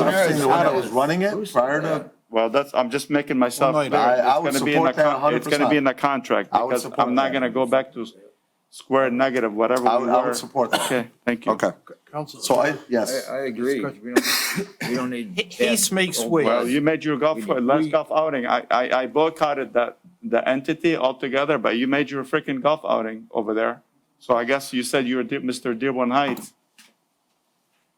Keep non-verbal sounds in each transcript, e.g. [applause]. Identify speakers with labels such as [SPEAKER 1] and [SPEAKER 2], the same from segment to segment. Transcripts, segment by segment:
[SPEAKER 1] I've seen the one that was
[SPEAKER 2] Sure.
[SPEAKER 1] running it prior to,
[SPEAKER 3] Well, that's, I'm just making myself.
[SPEAKER 2] Well, no, you
[SPEAKER 3] clear.
[SPEAKER 1] Oh, don't.
[SPEAKER 3] It's
[SPEAKER 1] I- I would
[SPEAKER 3] gonna be in the
[SPEAKER 1] support that
[SPEAKER 3] con- It's gonna be in the contract,
[SPEAKER 1] I would
[SPEAKER 3] because
[SPEAKER 1] support
[SPEAKER 3] I'm not
[SPEAKER 1] that.
[SPEAKER 3] gonna go back to s- square negative, whatever
[SPEAKER 1] I
[SPEAKER 3] we
[SPEAKER 1] would,
[SPEAKER 3] were.
[SPEAKER 1] I would support that.
[SPEAKER 3] Okay, thank you.
[SPEAKER 1] Okay, so
[SPEAKER 2] Council,
[SPEAKER 1] [laughs] I, yes,
[SPEAKER 4] I, I agree. We don't, we don't need.
[SPEAKER 2] Peace
[SPEAKER 4] that
[SPEAKER 2] makes
[SPEAKER 4] old
[SPEAKER 2] way.
[SPEAKER 3] Well,
[SPEAKER 4] guys.
[SPEAKER 3] you made your golf, last
[SPEAKER 2] we-
[SPEAKER 3] golf outing, I, I, I boycotted that, the entity altogether, but you made your freaking golf outing over there. So I guess you said you were Dear- Mr. Dearborn Heights.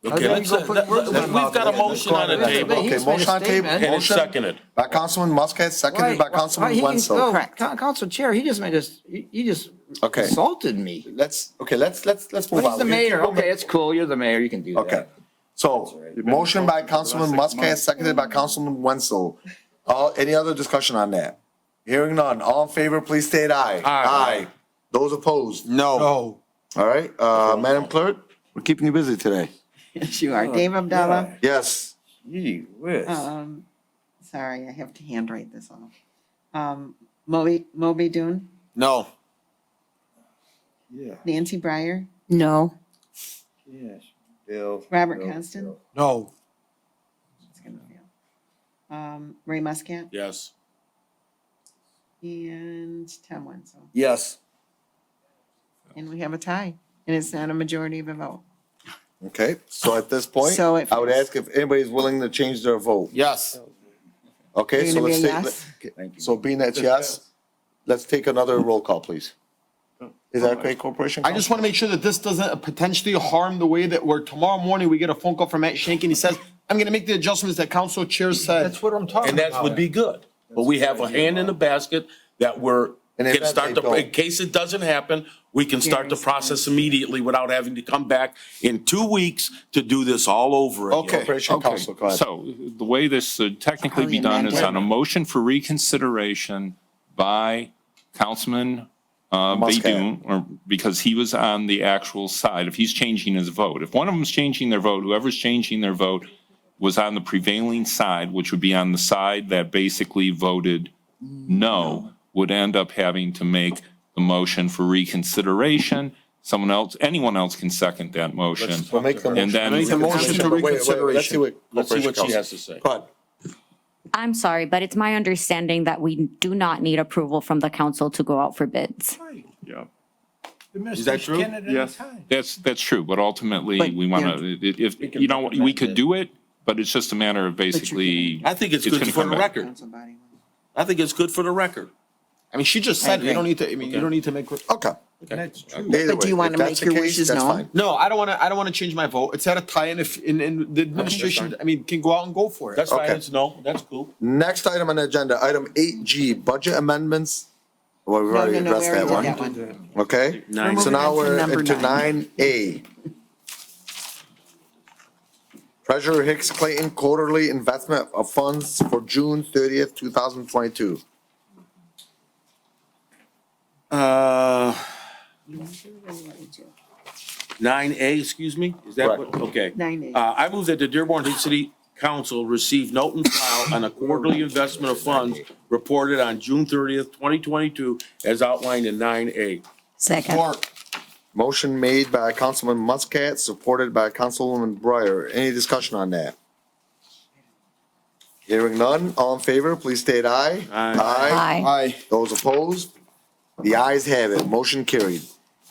[SPEAKER 5] Let's, uh, let- let- We've got a motion on the table,
[SPEAKER 1] Okay,
[SPEAKER 4] He's made a
[SPEAKER 1] motion on table.
[SPEAKER 4] statement.
[SPEAKER 5] and it's seconded.
[SPEAKER 1] by Councilman Muscat, seconded by
[SPEAKER 4] Why- why- why
[SPEAKER 1] Councilman
[SPEAKER 4] he- no,
[SPEAKER 1] Wenzel.
[SPEAKER 6] Correct.
[SPEAKER 4] Coun- Council Chair, he just made us, he he just
[SPEAKER 1] Okay.
[SPEAKER 4] insulted me.
[SPEAKER 1] Let's, okay, let's, let's, let's move on.
[SPEAKER 4] But he's the
[SPEAKER 1] We can keep
[SPEAKER 4] mayor.
[SPEAKER 1] going.
[SPEAKER 4] Okay, it's cool. You're the mayor. You can do that.
[SPEAKER 1] Okay, so, motion by Councilman Muscat, seconded by Councilman Wenzel. All, any other discussion on that? Hearing none, all in favor, please state aye. Aye. Those opposed? No.
[SPEAKER 2] no,
[SPEAKER 1] All right, uh, Madam Clerk? We're keeping you busy today.
[SPEAKER 6] Yes, you are. Dave Abdallah.
[SPEAKER 1] Yes,
[SPEAKER 4] Gee whiz.
[SPEAKER 6] Um, sorry, I have to handwrite this off. Um, Moby, Moby Dune,
[SPEAKER 7] No.
[SPEAKER 4] Yeah,
[SPEAKER 6] Nancy Breyer,
[SPEAKER 8] No.
[SPEAKER 4] yes. Bill.
[SPEAKER 6] Robert
[SPEAKER 4] Bill,
[SPEAKER 6] Constant?
[SPEAKER 4] Bill.
[SPEAKER 2] no.
[SPEAKER 6] it's gonna fail. Um, Ray Muscat
[SPEAKER 5] Yes.
[SPEAKER 6] and Tom Wenzel.
[SPEAKER 4] Yes.
[SPEAKER 6] And we have a tie and it's not a majority of a vote.
[SPEAKER 1] okay, so at this point,
[SPEAKER 6] So it
[SPEAKER 1] I would
[SPEAKER 6] fails.
[SPEAKER 1] ask if anybody's willing to change their vote.
[SPEAKER 7] Yes.
[SPEAKER 1] Okay,
[SPEAKER 6] You're
[SPEAKER 1] so
[SPEAKER 6] gonna
[SPEAKER 1] let's
[SPEAKER 6] be a
[SPEAKER 1] take,
[SPEAKER 6] yes?
[SPEAKER 4] Thank you.
[SPEAKER 1] so being that yes, let's take another roll call, please. Is that okay, Corporation?
[SPEAKER 7] I just want to make sure that this doesn't potentially harm the way that we're, tomorrow morning, we get a phone call from Matt Shank and he says, I'm going to make the adjustments that council chair said.
[SPEAKER 2] That's what I'm talking
[SPEAKER 5] And
[SPEAKER 2] about.
[SPEAKER 5] that would be good. But we have a hand in the basket that we're,
[SPEAKER 1] And if
[SPEAKER 5] can start
[SPEAKER 1] they
[SPEAKER 5] the,
[SPEAKER 1] don't-
[SPEAKER 5] in case it doesn't happen, we can start the
[SPEAKER 6] Hearings.
[SPEAKER 5] process immediately without having to come back in two weeks to do this all over again.
[SPEAKER 7] Okay.
[SPEAKER 1] Corporation
[SPEAKER 9] Okay,
[SPEAKER 1] Council, go ahead.
[SPEAKER 9] So the way this should technically be
[SPEAKER 6] Probably
[SPEAKER 9] done is
[SPEAKER 6] amended.
[SPEAKER 9] on a motion for reconsideration by Councilman uh,
[SPEAKER 1] Muscat.
[SPEAKER 9] Baydun, or because he was on the actual side, if he's changing his vote. If one of them's changing their vote, whoever's changing their vote was on the prevailing side, which would be on the side that basically voted no, would end up having to make the motion for reconsideration. Someone else, anyone else can second that motion.
[SPEAKER 1] We'll make the
[SPEAKER 9] And
[SPEAKER 1] motion.
[SPEAKER 9] then- Make the
[SPEAKER 5] motion to
[SPEAKER 1] Wait, wait, wait, Let's see
[SPEAKER 5] reconsideration.
[SPEAKER 1] what.
[SPEAKER 5] Let's see what
[SPEAKER 1] Corporation
[SPEAKER 5] she has
[SPEAKER 1] Council-
[SPEAKER 5] to say.
[SPEAKER 1] Go ahead.
[SPEAKER 10] I'm sorry, but it's my understanding that we do not need approval from the council to go out for bids.
[SPEAKER 3] Yeah.
[SPEAKER 2] Is
[SPEAKER 7] that true?
[SPEAKER 3] Yes.
[SPEAKER 9] That's, that's true, but ultimately,
[SPEAKER 6] But,
[SPEAKER 9] we want to, if,
[SPEAKER 5] can
[SPEAKER 9] you know, we
[SPEAKER 5] recommend
[SPEAKER 9] could
[SPEAKER 5] it.
[SPEAKER 9] do it, but it's just a matter of basically.
[SPEAKER 5] I think it's
[SPEAKER 9] It's
[SPEAKER 5] good
[SPEAKER 9] gonna
[SPEAKER 5] for
[SPEAKER 9] come
[SPEAKER 5] the
[SPEAKER 9] back.
[SPEAKER 5] record.
[SPEAKER 6] Council body.
[SPEAKER 5] I think it's good for the record.
[SPEAKER 7] I mean, she just said, it. you don't need to, I mean, you don't need to make.
[SPEAKER 1] Okay.
[SPEAKER 2] That's true.
[SPEAKER 1] Either
[SPEAKER 6] But do
[SPEAKER 1] way,
[SPEAKER 6] you
[SPEAKER 1] if
[SPEAKER 6] wanna
[SPEAKER 1] that's
[SPEAKER 6] make
[SPEAKER 1] the
[SPEAKER 6] your
[SPEAKER 1] case,
[SPEAKER 6] wishes
[SPEAKER 1] that's
[SPEAKER 6] known?
[SPEAKER 1] fine.
[SPEAKER 7] No, I don't want to, I don't want to change my vote. It's at a tie and if, and, and the administration, I mean, can go out and go for it.
[SPEAKER 5] That's fine,
[SPEAKER 1] Okay.
[SPEAKER 5] it's no, that's cool.
[SPEAKER 1] Next item on the agenda, item eight G, budget amendments. Well, we've
[SPEAKER 6] No,
[SPEAKER 1] already
[SPEAKER 6] no, no, we
[SPEAKER 1] addressed that
[SPEAKER 6] already did
[SPEAKER 1] one,
[SPEAKER 6] that one.
[SPEAKER 1] okay?
[SPEAKER 5] Nine.
[SPEAKER 1] So
[SPEAKER 6] We're
[SPEAKER 1] now
[SPEAKER 6] moving
[SPEAKER 1] we're
[SPEAKER 6] on to number
[SPEAKER 1] into nine A. Treasurer Hicks Clayton quarterly investment of funds for June thirtieth, two thousand twenty-two.
[SPEAKER 5] Uh, nine A, excuse me, is that what, okay.
[SPEAKER 6] Nine A.
[SPEAKER 5] Uh, I move that the Dearborn City Council receive note and file on a quarterly investment of funds reported on June thirtieth, twenty twenty-two, as outlined in nine A.
[SPEAKER 10] Second.
[SPEAKER 7] Mark,
[SPEAKER 1] Motion made by Councilman Muscat, supported by Councilwoman Breyer. Any discussion on that? Hearing none, all in favor, please state aye.
[SPEAKER 10] Aye.
[SPEAKER 7] aye.
[SPEAKER 1] Those opposed? The ayes have it, motion carried.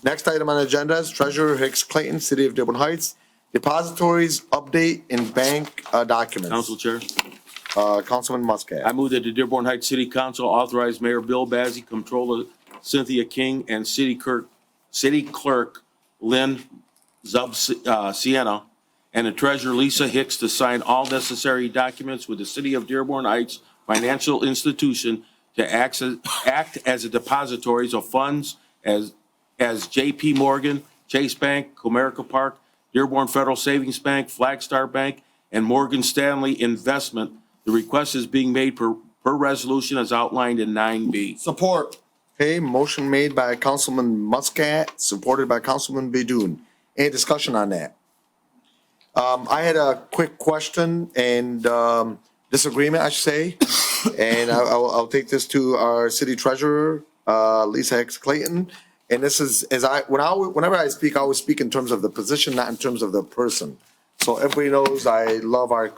[SPEAKER 1] Next item on the agenda is Treasurer Hicks Clayton, City of Dearborn Heights, depositories update and bank uh, documents.
[SPEAKER 5] Council Chair,
[SPEAKER 1] Uh, Councilman
[SPEAKER 5] I
[SPEAKER 1] Muscat.
[SPEAKER 5] move that the Dearborn Heights City Council authorize Mayor Bill Bazey, Comptroller Cynthia King, and City Clerk, City Clerk Lynn Zub, uh, Sienna, and the Treasurer Lisa Hicks to sign all necessary documents with the City of Dearborn Heights Financial Institution to access, act as a depositories of funds as, as JP Morgan, Chase Bank, Comerica Park, Dearborn Federal Savings Bank, Flagstar Bank, and Morgan Stanley Investment. The request is being made per, per resolution as outlined in nine B.
[SPEAKER 7] Support.
[SPEAKER 1] Okay, motion made by Councilman Muscat, supported by Councilman Bedun. Any discussion on that? Um, I had a quick question and, um, disagreement, I should say. And I, I'll, I'll take this to our city treasurer, uh, Lisa Hicks Clayton. And this is, as I, when I, whenever I speak, I always speak in terms of the position, not in terms of the person. So everybody knows I love our